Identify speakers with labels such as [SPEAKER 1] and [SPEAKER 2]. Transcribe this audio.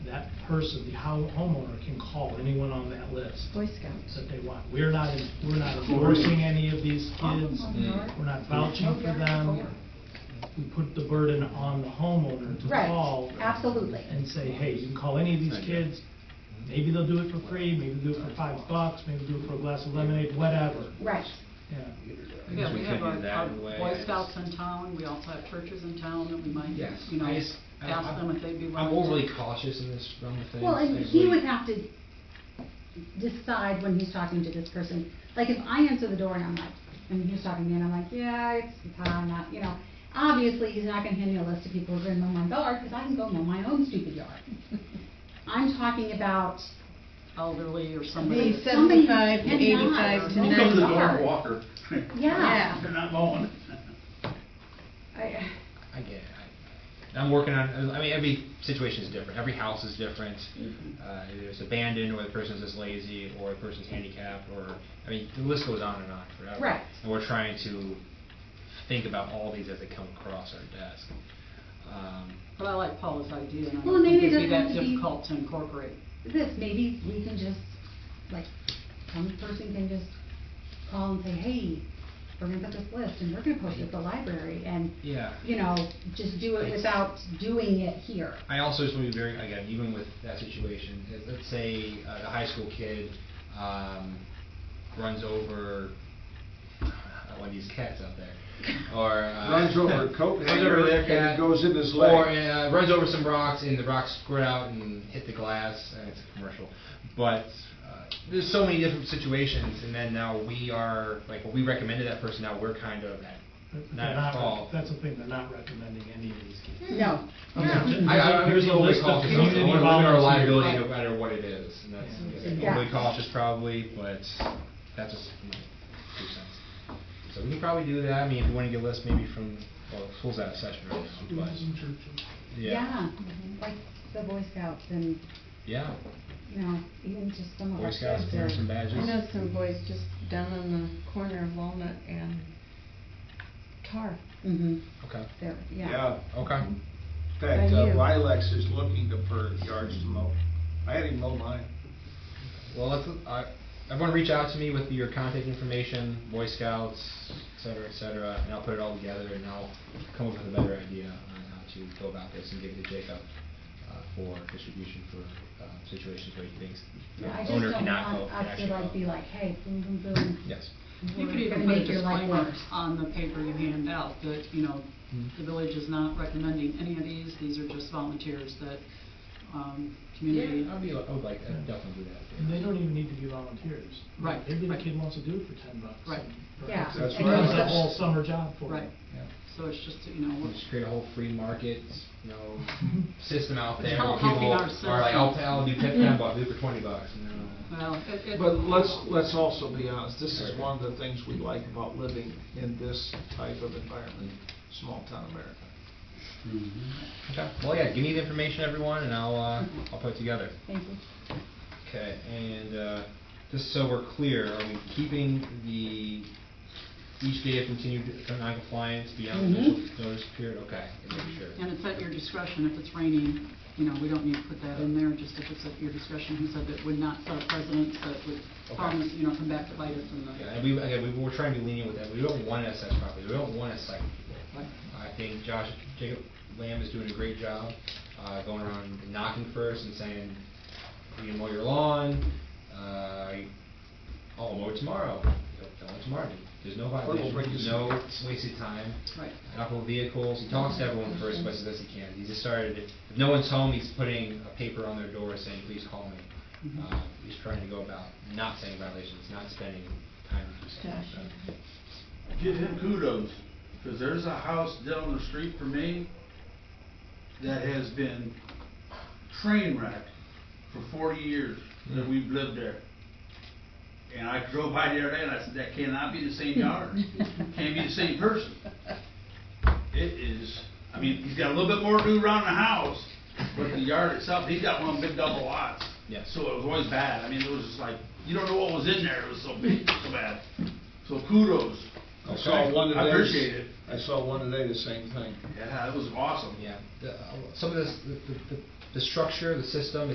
[SPEAKER 1] that person, the home- homeowner, can call anyone on that list
[SPEAKER 2] Boy Scouts.
[SPEAKER 1] that they want. We're not, en- we're not endorsing any of these kids, we're not vouching for them. We put the burden on the homeowner to call
[SPEAKER 2] Right, absolutely.
[SPEAKER 1] and say, hey, you can call any of these kids, maybe they'll do it for free, maybe they'll do it for five bucks, maybe they'll do it for a glass of lemonade, whatever,
[SPEAKER 2] Right.
[SPEAKER 1] yeah.
[SPEAKER 3] Yeah, we
[SPEAKER 4] We could
[SPEAKER 3] have
[SPEAKER 4] do
[SPEAKER 3] our,
[SPEAKER 4] that
[SPEAKER 3] our
[SPEAKER 4] in a way.
[SPEAKER 3] Boy Scouts in town, we also have churches in town, and we might,
[SPEAKER 4] Yes,
[SPEAKER 3] you know,
[SPEAKER 4] I just- I-
[SPEAKER 3] ask
[SPEAKER 4] I'm-
[SPEAKER 3] them if they'd be willing
[SPEAKER 4] I'm
[SPEAKER 3] to.
[SPEAKER 4] overly cautious in this realm of things.
[SPEAKER 2] Well, and
[SPEAKER 4] I
[SPEAKER 2] he
[SPEAKER 4] really-
[SPEAKER 2] would have to decide when he's talking to this person. Like, if I answer the door and I'm like, and he's talking to me, and I'm like, yeah, it's, I'm not, you know, obviously, he's not gonna hand me a list of people who are gonna mow my yard, because I can go mow my own stupid yard. I'm talking about
[SPEAKER 3] Elderly or somebody.
[SPEAKER 5] Be
[SPEAKER 3] that's-
[SPEAKER 2] Somebody
[SPEAKER 5] seventy-five to
[SPEAKER 2] cannot.
[SPEAKER 5] eighty-five to
[SPEAKER 2] You
[SPEAKER 5] ninety.
[SPEAKER 2] come to the door and walk.
[SPEAKER 6] Walker.
[SPEAKER 2] Yeah.
[SPEAKER 6] They're not mowing.
[SPEAKER 2] I,
[SPEAKER 4] I get it. I- I'm working on, I mean, every situation is different. Every house is different.
[SPEAKER 2] Mm-hmm.
[SPEAKER 4] Uh, either it's abandoned, or the person's just lazy, or the person's handicapped, or, I mean, the list goes on and on forever.
[SPEAKER 2] Right.
[SPEAKER 4] And we're trying to think about all these as they come across our desk. Um,
[SPEAKER 3] But I like Paula's idea, and I
[SPEAKER 2] Well,
[SPEAKER 3] don't think
[SPEAKER 2] maybe
[SPEAKER 3] it'd be
[SPEAKER 2] it
[SPEAKER 3] that
[SPEAKER 2] doesn't have to be-
[SPEAKER 3] difficult to incorporate.
[SPEAKER 2] this, maybe we can just, like, some person can just call and say, hey, we're gonna put this list, and we're gonna post it at the library, and
[SPEAKER 4] Yeah.
[SPEAKER 2] you know, just do it without doing it here.
[SPEAKER 4] I also just want to be very, again, even with that situation, if- let's say uh, the high school kid um, runs over one of these cats out there, or. uh,
[SPEAKER 7] Runs over a coat
[SPEAKER 4] runs
[SPEAKER 7] hanger
[SPEAKER 4] over a
[SPEAKER 7] and it
[SPEAKER 4] cat,
[SPEAKER 7] goes in his
[SPEAKER 4] Or
[SPEAKER 7] leg.
[SPEAKER 4] uh, runs over some rocks and the rocks squirt out and hit the glass, and it's a commercial. But uh, there's so many different situations, and then now we are, like, what we recommended that person, now we're kind of at,
[SPEAKER 1] But they're
[SPEAKER 4] not
[SPEAKER 1] not
[SPEAKER 4] at
[SPEAKER 1] rec-
[SPEAKER 4] fault.
[SPEAKER 1] That's the thing, they're not recommending any of these kids.
[SPEAKER 2] No.
[SPEAKER 4] I, I, I'm
[SPEAKER 1] There's
[SPEAKER 4] just
[SPEAKER 1] a
[SPEAKER 4] overly
[SPEAKER 1] list of
[SPEAKER 4] cautious, I
[SPEAKER 1] community
[SPEAKER 4] wanna limit our
[SPEAKER 1] volunteers.
[SPEAKER 4] liability no matter what it is, and that's,
[SPEAKER 2] Yeah.
[SPEAKER 4] overly cautious probably, but that's just my two cents. So we can probably do that, I mean, if you wanna get a list maybe from, well, school's out of session right now, but, yeah.
[SPEAKER 2] Yeah, like the Boy Scouts and,
[SPEAKER 4] Yeah.
[SPEAKER 2] you know, even just some of our
[SPEAKER 4] Boy Scouts,
[SPEAKER 2] kids
[SPEAKER 4] parents
[SPEAKER 2] are-
[SPEAKER 4] and
[SPEAKER 5] I know
[SPEAKER 4] badges.
[SPEAKER 5] some boys just down on the corner of Walnut and Tar,
[SPEAKER 2] Mhm,
[SPEAKER 4] Okay,
[SPEAKER 2] they're, yeah.
[SPEAKER 7] Yeah,
[SPEAKER 4] okay.
[SPEAKER 7] in fact, uh,
[SPEAKER 5] Thank you.
[SPEAKER 7] Lilacs is looking to- for yards to mow. I had him mow mine.
[SPEAKER 4] Well, let's, I, everyone reach out to me with your contact information, Boy Scouts, et cetera, et cetera, and I'll put it all together and I'll come up with a better idea on how to go about this and give it to Jacob uh, for distribution for uh, situations where he thinks the
[SPEAKER 2] Yeah, I just
[SPEAKER 4] owner
[SPEAKER 2] don't
[SPEAKER 4] cannot go.
[SPEAKER 2] want us to
[SPEAKER 4] actually
[SPEAKER 2] like
[SPEAKER 4] go.
[SPEAKER 2] be like, hey, boom, boom, boom.
[SPEAKER 4] Yes.
[SPEAKER 3] You
[SPEAKER 2] we're
[SPEAKER 3] could even
[SPEAKER 2] gonna
[SPEAKER 3] put a
[SPEAKER 2] make your life
[SPEAKER 3] disclaimer
[SPEAKER 2] worse.
[SPEAKER 3] on the paper you hand out, that, you know,
[SPEAKER 1] Mm-hmm.
[SPEAKER 4] Mhm.
[SPEAKER 3] the village is not recommending any of these, these are just volunteers that, um, community.
[SPEAKER 4] I'd be, I would like, I'd definitely do
[SPEAKER 1] And
[SPEAKER 4] that.
[SPEAKER 1] they don't even need to be volunteers.
[SPEAKER 3] Right,
[SPEAKER 1] Maybe the
[SPEAKER 3] right.
[SPEAKER 1] kid wants to do it for ten bucks.
[SPEAKER 3] Right.
[SPEAKER 1] and-
[SPEAKER 2] Yeah.
[SPEAKER 1] It's
[SPEAKER 7] That's
[SPEAKER 1] a-
[SPEAKER 7] right.
[SPEAKER 1] It's a whole summer job for
[SPEAKER 3] Right,
[SPEAKER 1] them.
[SPEAKER 4] Yeah.
[SPEAKER 3] so it's just, you know,
[SPEAKER 4] We'll
[SPEAKER 3] we're-
[SPEAKER 4] just create a whole free market, you know, system out
[SPEAKER 3] It's
[SPEAKER 4] there
[SPEAKER 3] all
[SPEAKER 4] where
[SPEAKER 3] helping
[SPEAKER 4] people
[SPEAKER 3] our
[SPEAKER 4] are like, I'll,
[SPEAKER 3] citizens.
[SPEAKER 4] I'll do ten bucks, do it for twenty bucks, you know.
[SPEAKER 3] well, it, it.
[SPEAKER 7] But let's, let's also be honest, this is one of the things we like about living in this type of environment, small town America.
[SPEAKER 4] Okay, well, yeah, give me the information, everyone, and I'll, uh, I'll put it together.
[SPEAKER 2] Thank you.
[SPEAKER 4] Okay, and, uh, just so we're clear, are we keeping the each day of continued non-compliance beyond the
[SPEAKER 2] Mhm.
[SPEAKER 4] initial notice period? Okay, and make sure.
[SPEAKER 3] And it's at your discretion, if it's raining, you know, we don't need to put that in there, just if it's at your discretion, he said that would not set a precedent, but would
[SPEAKER 4] Okay.
[SPEAKER 3] promise, you know, come back to bite us in the.
[SPEAKER 4] Yeah, and we, again, we, we're trying to be lenient with that, we don't want to assess properties, we don't want to cite people.
[SPEAKER 3] Right.
[SPEAKER 4] I think Josh, Jacob Lamb is doing a great job, uh, going around and knocking first and saying, you can mow your lawn, uh, I'll mow it tomorrow, don't mow it tomorrow, there's no violation,
[SPEAKER 7] breaks.
[SPEAKER 4] no wasted time.
[SPEAKER 3] Right.
[SPEAKER 4] Inoperable vehicles, he talks to everyone first, but as best he can, he just started, if no one's home, he's putting a paper on their door saying, please call me.
[SPEAKER 6] Mm-hmm.
[SPEAKER 3] Mhm.
[SPEAKER 4] Uh, he's trying to go about not saying violations, not spending time. to do something like that.
[SPEAKER 6] Give him kudos, because there's a house down the street from me that has been train wreck for forty years
[SPEAKER 7] Mm-hmm.
[SPEAKER 6] that we've lived there. And I drove by the other day and I said, that cannot be the same yard, can't be the same person. It is, I mean, he's got a little bit more to do around the house, but the yard itself, he's got one big double lots.
[SPEAKER 4] Yes.
[SPEAKER 6] So it was always bad, I mean, it was just like, you don't know what was in there, it was so big, so bad. So kudos.
[SPEAKER 7] I saw one
[SPEAKER 6] I
[SPEAKER 7] today.
[SPEAKER 6] appreciate it.
[SPEAKER 7] I saw one today, the same thing.
[SPEAKER 6] Yeah, it was awesome.
[SPEAKER 4] Yeah, the, uh, some of this, the, the- the the structure, the system